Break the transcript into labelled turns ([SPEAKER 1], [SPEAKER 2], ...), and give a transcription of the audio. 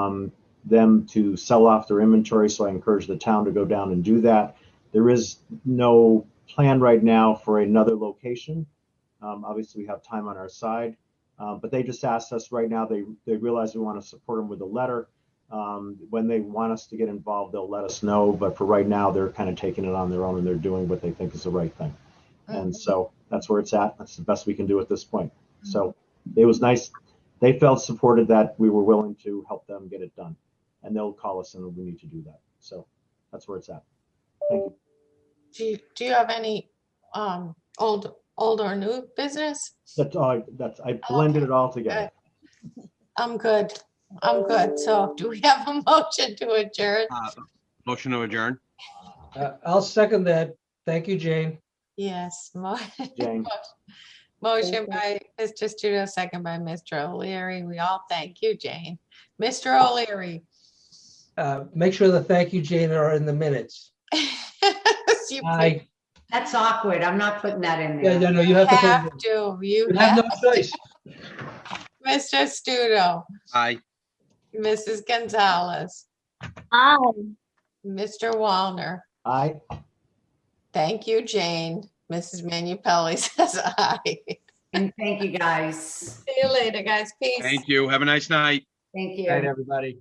[SPEAKER 1] um, them to sell off their inventory. So I encourage the town to go down and do that. There is no plan right now for another location. Um, obviously, we have time on our side, uh, but they just asked us right now. They they realize we want to support them with a letter. Um, when they want us to get involved, they'll let us know. But for right now, they're kind of taking it on their own and they're doing what they think is the right thing.
[SPEAKER 2] Hmm.
[SPEAKER 1] And so that's where it's at. That's the best we can do at this point. So it was nice. They felt supported that we were willing to help them get it done. And they'll call us and we need to do that. So that's where it's at. Thank you.
[SPEAKER 2] Do you, do you have any um old, old or new business?
[SPEAKER 1] That's all, I- that's, I blended it all together.
[SPEAKER 2] I'm good. I'm good. So do we have a motion to adjourn?
[SPEAKER 3] Uh, Motion to adjourn.
[SPEAKER 4] Uh, I'll second that. Thank you, Jane.
[SPEAKER 2] Yes. mo-
[SPEAKER 1] Jane,
[SPEAKER 2] Motion by Mr. Studo, second by Mr. O'Leary. We all thank you, Jane. Mr. O'Leary.
[SPEAKER 4] Uh, Make sure the thank you, Jane, are in the minutes.
[SPEAKER 2] You
[SPEAKER 4] I,
[SPEAKER 5] That's awkward. I'm not putting that in
[SPEAKER 4] yeah,
[SPEAKER 5] there.
[SPEAKER 4] yeah, no, you have to.
[SPEAKER 2] have
[SPEAKER 4] put it
[SPEAKER 2] to, you
[SPEAKER 4] in. You have
[SPEAKER 2] have,
[SPEAKER 4] no choice.
[SPEAKER 2] Mr. Studo,
[SPEAKER 3] Aye.
[SPEAKER 2] Mrs. Gonzalez,
[SPEAKER 6] Aye.
[SPEAKER 2] Mr. Walner.
[SPEAKER 1] I,
[SPEAKER 2] Thank you, Jane. Mrs. Manu Pelli says aye. See
[SPEAKER 5] And thank you, guys.
[SPEAKER 2] you later, guys. Peace.
[SPEAKER 3] Thank you. Have a nice night.
[SPEAKER 5] Thank
[SPEAKER 4] Night,
[SPEAKER 5] you.
[SPEAKER 4] everybody.